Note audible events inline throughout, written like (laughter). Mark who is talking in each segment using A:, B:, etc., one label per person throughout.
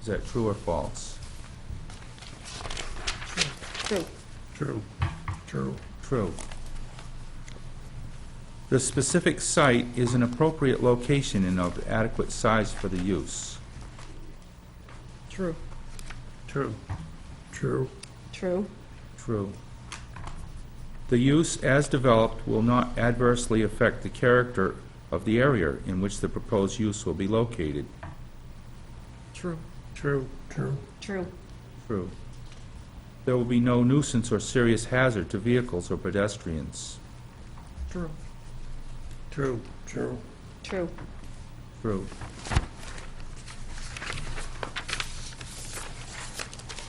A: Is that true or false?
B: True.
C: True. True.
A: True. The specific site is an appropriate location and of adequate size for the use.
B: True.
C: True. True.
B: True.
A: True. The use as developed will not adversely affect the character of the area in which the proposed use will be located.
B: True.
C: True. True.
B: True.
A: True. There will be no nuisance or serious hazard to vehicles or pedestrians.
B: True.
C: True. True.
B: True.
A: True.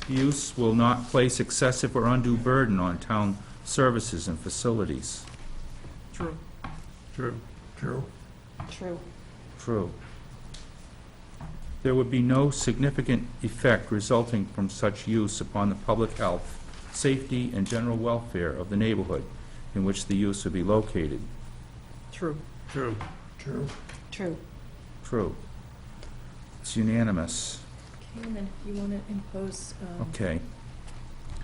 A: Use will not place excessive or undue burden on town services and facilities.
B: True.
C: True. True.
B: True.
A: True. There would be no significant effect resulting from such use upon the public health, safety, and general welfare of the neighborhood in which the use would be located.
B: True.
C: True. True.
B: True.
A: True. It's unanimous.
D: Okay, and then if you want to impose um,
A: Okay,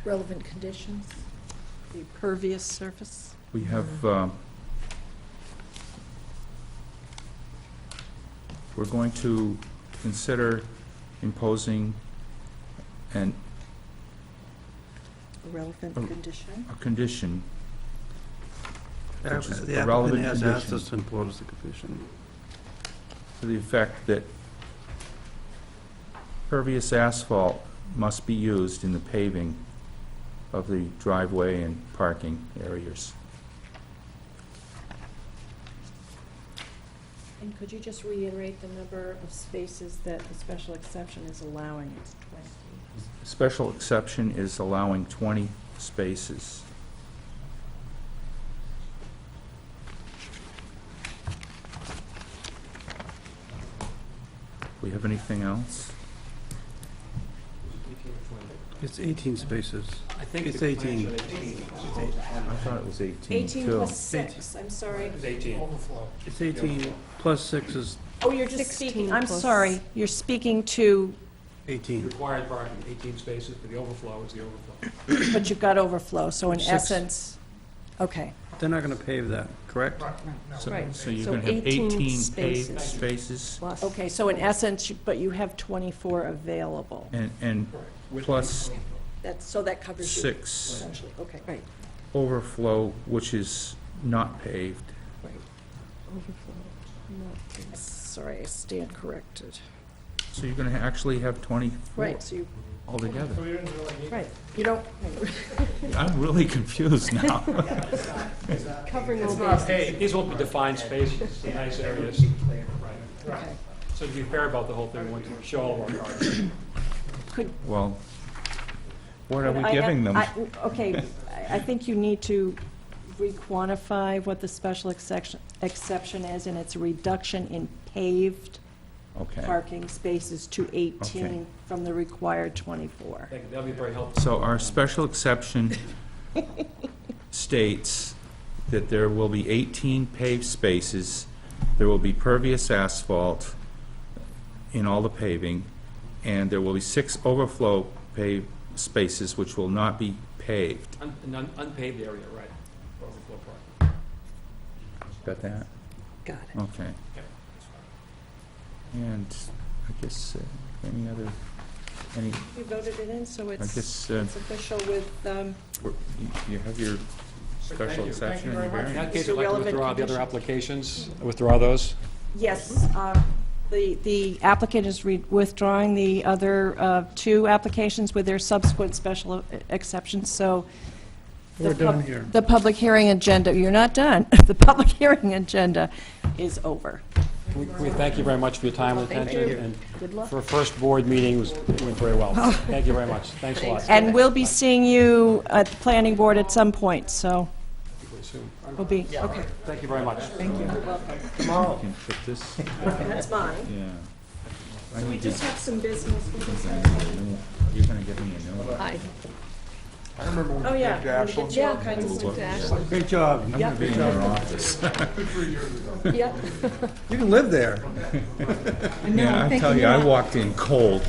D: relevant conditions, the pervious surface.
A: we have, um, we're going to consider imposing an
D: Relevant
A: Oh.
D: condition.
A: a condition.
C: The
A: Which is a relevant
C: applicant has asked
A: condition.
C: us to impose the condition.
A: to the effect that pervious asphalt must be used in the paving of the driveway and parking areas.
D: And could you just reiterate the number of spaces that the special exception is allowing? It's 20.
A: Special exception is allowing 20 spaces. We have anything else?
C: It's 18 spaces.
E: I think
C: It's
E: the plans
C: 18.
E: showed 18.
A: I thought it was 18, too.
D: 18 plus 6, I'm sorry.
E: It's 18.
C: It's 18 plus 6 is
D: Oh, you're just
B: 16
D: speaking, I'm
B: plus-
D: sorry. You're speaking to,
C: 18.
E: Required parking, 18 spaces, but the overflow is the overflow.
D: but you've got overflow, so in
C: Six.
D: essence, okay.
C: They're not going to pave that, correct?
A: So-
D: Right.
A: So you're
D: So
A: going to have
D: 18
A: 18 paved
D: spaces.
A: spaces,
B: Plus.
D: Okay, so in essence, you- but you have 24 available.
A: and, and plus
D: That's, so that covers you,
A: six
D: essentially, okay.
B: Right.
A: overflow, which is not paved.
D: Sorry, I stand corrected.
A: So you're going to actually have 24
D: Right, so you,
A: altogether.
D: right, you don't,
A: I'm really confused now.
D: (laughs) covering all bases.
E: These won't be defined spaces, they're nice areas.
D: Okay.
E: So to be fair about the whole thing, we want to show all of our cars.
D: Could,
A: Well, what are we
D: I- I-
A: giving them?
D: I- Okay, I- I think you need to re-quantify what the special exception, exception is, and it's a reduction in paved
A: Okay,
D: parking spaces to 18
A: Okay.
D: from the required 24.
E: That- That'll be very helpful.
A: so our special
D: (laughs)
A: exception states that there will be 18 paved spaces, there will be pervious asphalt in all the paving, and there will be six overflow paved spaces which will not be paved.
E: Un- An un- unpaved area, right, for overflow parking.
A: Got that?
D: Got
A: Okay.
E: Yeah, that's fine.
A: And I guess, uh, any other, any,
D: You voted it in, so
A: I
D: it's
A: guess, uh,
D: it's official with um,
A: we're- you you have your
E: Thank
A: special
E: you.
A: exception and your
E: In
A: variance.
E: that case,
D: Mr.
E: I'd like to
D: Relevant
E: withdraw the other
D: conditions.
E: applications, withdraw those.
D: Yes, uh, the the applicant is re- withdrawing the other uh, two applications with their subsequent special e, exceptions, so... the
C: We're done
D: pub-
C: here.
D: The public hearing agenda, you're not done. (laughs) The public hearing agenda is over.
E: We we thank you very much for your time and
D: Thank
E: attention,
D: you.
E: and
D: Good luck.
E: for a first board meeting, it was- it went very
D: (laughs)
E: well. Thank you very much, thanks a lot.
D: And we'll be seeing you at the planning board at some point, so we'll be, okay.
E: Thank you very much.
A: You can put this,
D: That's mine.
A: yeah. I
D: We
A: need to,
D: just have some business.
A: you're gonna give me a new one.
D: Hi. Oh, yeah. I'm gonna get you all kinds of stuff to Ashland.
C: Great job.
A: I'm gonna be in your office.
D: Yeah.
C: You can live there.
A: Yeah, I tell you, I walked in cold.